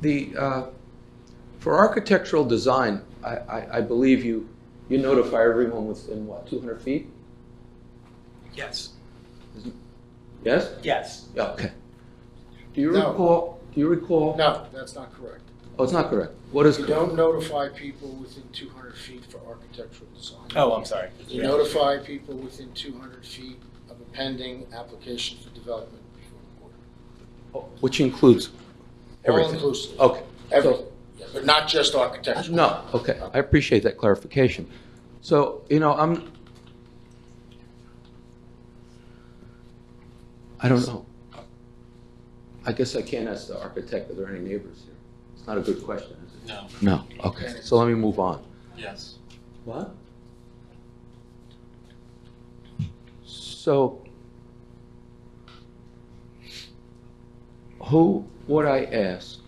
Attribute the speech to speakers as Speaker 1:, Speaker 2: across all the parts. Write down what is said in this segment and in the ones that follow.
Speaker 1: The, uh, for architectural design, I, I, I believe you, you notify everyone within what, 200 feet?
Speaker 2: Yes,
Speaker 1: Yes?
Speaker 2: yes.
Speaker 1: Yeah, okay. Do you
Speaker 3: No.
Speaker 1: recall, do you recall?
Speaker 3: No, that's not correct.
Speaker 1: Oh, it's not correct. What is
Speaker 3: You
Speaker 1: correct?
Speaker 3: don't notify people within 200 feet for architectural design.
Speaker 2: Oh, I'm sorry.
Speaker 3: You notify people within 200 feet of a pending application for development before the board.
Speaker 1: Which includes
Speaker 3: All
Speaker 1: everything?
Speaker 3: inclusive,
Speaker 1: Okay.
Speaker 3: everything, Yeah, but not just architectural.
Speaker 1: No, okay, I appreciate that clarification. So, you know, I'm, I don't know. I guess I can't ask the architect if there are any neighbors here. It's not a good question, is it?
Speaker 4: No,
Speaker 1: No, okay, so let me move on.
Speaker 4: yes.
Speaker 1: What? So, who would I ask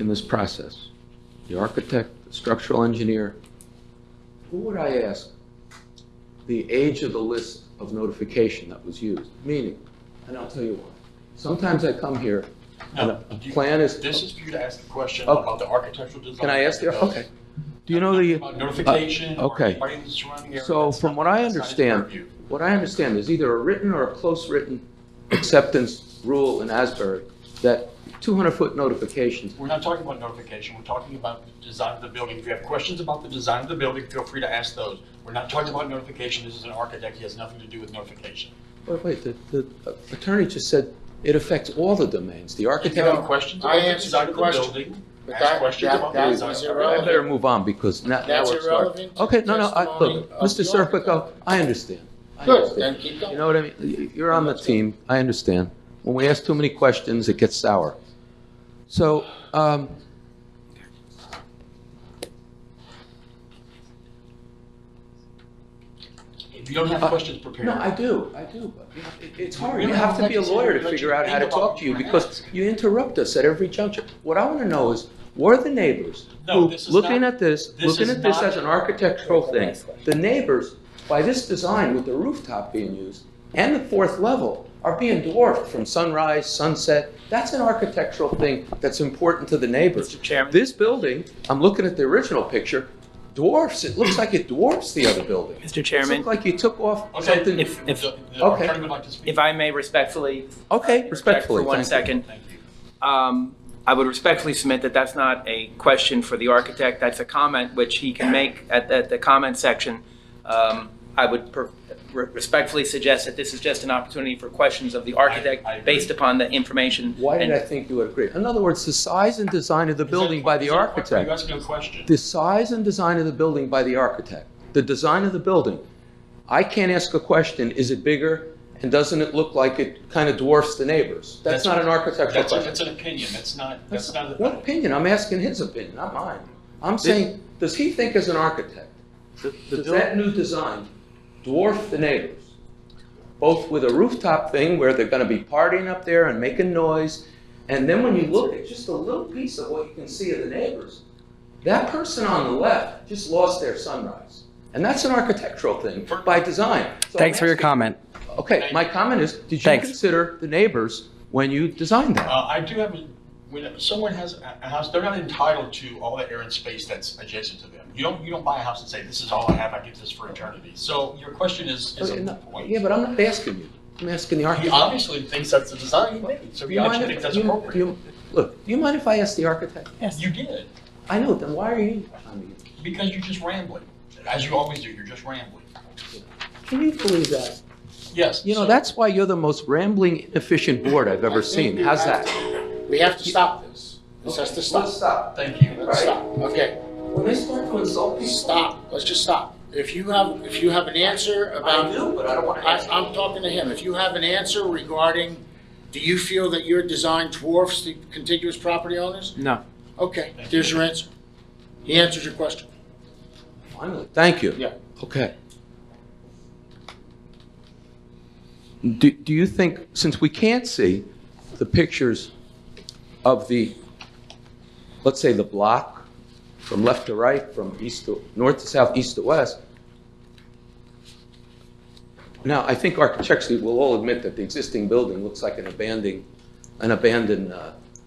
Speaker 1: in this process? The architect, the structural engineer? Who would I ask the age of the list of notification that was used? Meaning, and I'll tell you why. Sometimes I come here and a
Speaker 4: No,
Speaker 1: a
Speaker 4: you-
Speaker 1: plan is,
Speaker 4: This is for you to ask the question
Speaker 1: Okay.
Speaker 4: about the architectural design.
Speaker 1: can I ask the,
Speaker 4: Because-
Speaker 1: okay. Do you know the?
Speaker 4: About Notification.
Speaker 1: Uh,
Speaker 4: or
Speaker 1: okay.
Speaker 4: anybody in the surrounding area,
Speaker 1: So
Speaker 4: that's
Speaker 1: from
Speaker 4: not-
Speaker 1: what I
Speaker 4: that's not his
Speaker 1: understand,
Speaker 4: purview.
Speaker 1: what I understand, there's either a written or a close written acceptance rule in Asbury that 200-foot notifications,
Speaker 4: We're not talking about notification, we're talking about the design of the building. If you have questions about the design of the building, feel free to ask those. We're not talking about notification, this is an architect, he has nothing to do with notification.
Speaker 1: wait, oh, wait, the the attorney just said it affects all the domains, the
Speaker 4: If you have
Speaker 1: architect.
Speaker 4: questions
Speaker 3: I
Speaker 4: about the
Speaker 3: answered
Speaker 4: design
Speaker 3: your
Speaker 4: of the
Speaker 3: question.
Speaker 4: building,
Speaker 3: But
Speaker 4: ask
Speaker 3: that-
Speaker 4: questions
Speaker 3: that-
Speaker 4: about the
Speaker 3: that
Speaker 4: design.
Speaker 3: was
Speaker 4: of the
Speaker 1: I
Speaker 3: irrelevant.
Speaker 1: better move on because now now
Speaker 3: That's
Speaker 1: we're starting.
Speaker 3: irrelevant to
Speaker 1: Okay,
Speaker 3: the
Speaker 1: no, no, I- look,
Speaker 3: testimony
Speaker 1: Mr.
Speaker 3: of the architect.
Speaker 1: Serpico, I understand. I
Speaker 3: Good,
Speaker 1: understand.
Speaker 3: then keep
Speaker 1: You
Speaker 3: going.
Speaker 1: know what I mean? You're on the team, I understand. When we ask too many questions, it gets sour. So, um,
Speaker 4: If you don't have questions prepared.
Speaker 1: Uh, No, I do, I do, but you know, it- it's hard.
Speaker 4: You
Speaker 1: You
Speaker 4: don't
Speaker 1: have to
Speaker 4: have
Speaker 1: be a
Speaker 4: to
Speaker 1: lawyer to
Speaker 4: let
Speaker 1: figure
Speaker 4: you
Speaker 1: out how to
Speaker 4: think about
Speaker 1: talk to you
Speaker 4: what you
Speaker 1: because
Speaker 4: ask.
Speaker 1: you interrupt us at every juncture. What I want to know is, were the neighbors
Speaker 4: No,
Speaker 1: who,
Speaker 4: this is
Speaker 1: looking
Speaker 4: not-
Speaker 1: at this,
Speaker 4: this
Speaker 1: looking
Speaker 4: is
Speaker 1: at this
Speaker 4: not-
Speaker 1: as an architectural thing, the neighbors, by this design with the rooftop being used and the fourth level, are being dwarfed from sunrise, sunset. That's an architectural thing that's important to the neighbors.
Speaker 2: Mr. Chairman?
Speaker 1: This building, I'm looking at the original picture, dwarfs, it looks like it dwarfs the other building.
Speaker 2: Mr.
Speaker 1: It
Speaker 2: Chairman,
Speaker 1: looked like you took off
Speaker 4: Okay,
Speaker 1: something.
Speaker 4: if, if,
Speaker 2: If- if-
Speaker 4: the the
Speaker 1: Okay.
Speaker 4: attorney would like to speak.
Speaker 2: if I may respectfully.
Speaker 1: Okay,
Speaker 2: interject
Speaker 1: respectfully.
Speaker 2: For one
Speaker 1: thank you.
Speaker 2: second,
Speaker 4: Thank you.
Speaker 2: um, I would respectfully submit that that's not a question for the architect. That's a comment which he can make at, at the comment section. Um, I would per- re- respectfully suggest that this is just an opportunity for questions of the architect
Speaker 4: I agree.
Speaker 2: based upon the information.
Speaker 1: Why did
Speaker 2: and-
Speaker 1: I think you would agree? In other words, the size and design of the
Speaker 4: Is that-
Speaker 1: building by the
Speaker 4: is that- Are you
Speaker 1: architect.
Speaker 4: asking a question?
Speaker 1: The size and design of the building by the architect. The design of the building. I can't ask a question, is it bigger? And doesn't it look like it kind of dwarfs the neighbors? That's
Speaker 4: That's-
Speaker 1: not an architectural
Speaker 4: That's, a-
Speaker 1: question.
Speaker 4: that's an opinion, that's not, that's
Speaker 1: That's-
Speaker 4: not. an
Speaker 1: What opinion? I'm asking his opinion, not mine. I'm saying, does he think as an architect, does that new design dwarf the neighbors? Both with a rooftop thing where they're gonna be partying up there and making noise, and then when you look at just a little piece of what you can see of the neighbors, that person on the left just lost their sunrise. And that's an architectural thing by design. So
Speaker 5: Thanks for your
Speaker 1: I'm asking-
Speaker 5: comment.
Speaker 1: Okay, my comment is, did you
Speaker 5: Thanks.
Speaker 1: consider the neighbors when you designed that?
Speaker 4: Uh, I do have, a- when someone has a a house, they're not entitled to all that air and space that's adjacent to them. You don't, you don't buy a house and say, this is all I have, I give this for eternity. So your question is, is a moot point.
Speaker 1: Yeah, but I'm not asking you. I'm asking the
Speaker 4: He
Speaker 1: architect.
Speaker 4: obviously thinks that's the design he made, so
Speaker 1: Do
Speaker 4: he
Speaker 1: you mind
Speaker 4: obviously
Speaker 1: if-
Speaker 4: thinks that's
Speaker 1: do you- do
Speaker 4: appropriate.
Speaker 1: you- Look, do you mind if I ask the architect?
Speaker 4: You did,
Speaker 1: I know, then why are you on me?
Speaker 4: because you're just rambling, as you always do, you're just rambling.
Speaker 1: Can you believe that?
Speaker 4: Yes.
Speaker 1: You know,
Speaker 4: so-
Speaker 1: that's why you're the most rambling, inefficient board I've ever seen. How's that?
Speaker 3: We have to stop this. This has to stop.
Speaker 1: stop.
Speaker 4: Thank you.
Speaker 3: Let's stop, okay.
Speaker 1: When they start to insult
Speaker 3: Stop, let's just stop. If you have, if you have an answer about.
Speaker 1: but I don't want
Speaker 3: I, I'm talking to him. If you have an answer regarding, do you feel that your design dwarfs the contiguous property owners?
Speaker 2: No.
Speaker 3: Okay, there's your answer. He answers your question.
Speaker 1: Finally, thank you.
Speaker 3: Yeah.
Speaker 1: Okay. Do, do you think, since we can't see the pictures of the, let's say, the block from left to right, from east to, north to south, east to west, now, I think architecturally, we'll all admit that the existing building looks like an abandoned, an abandoned uh,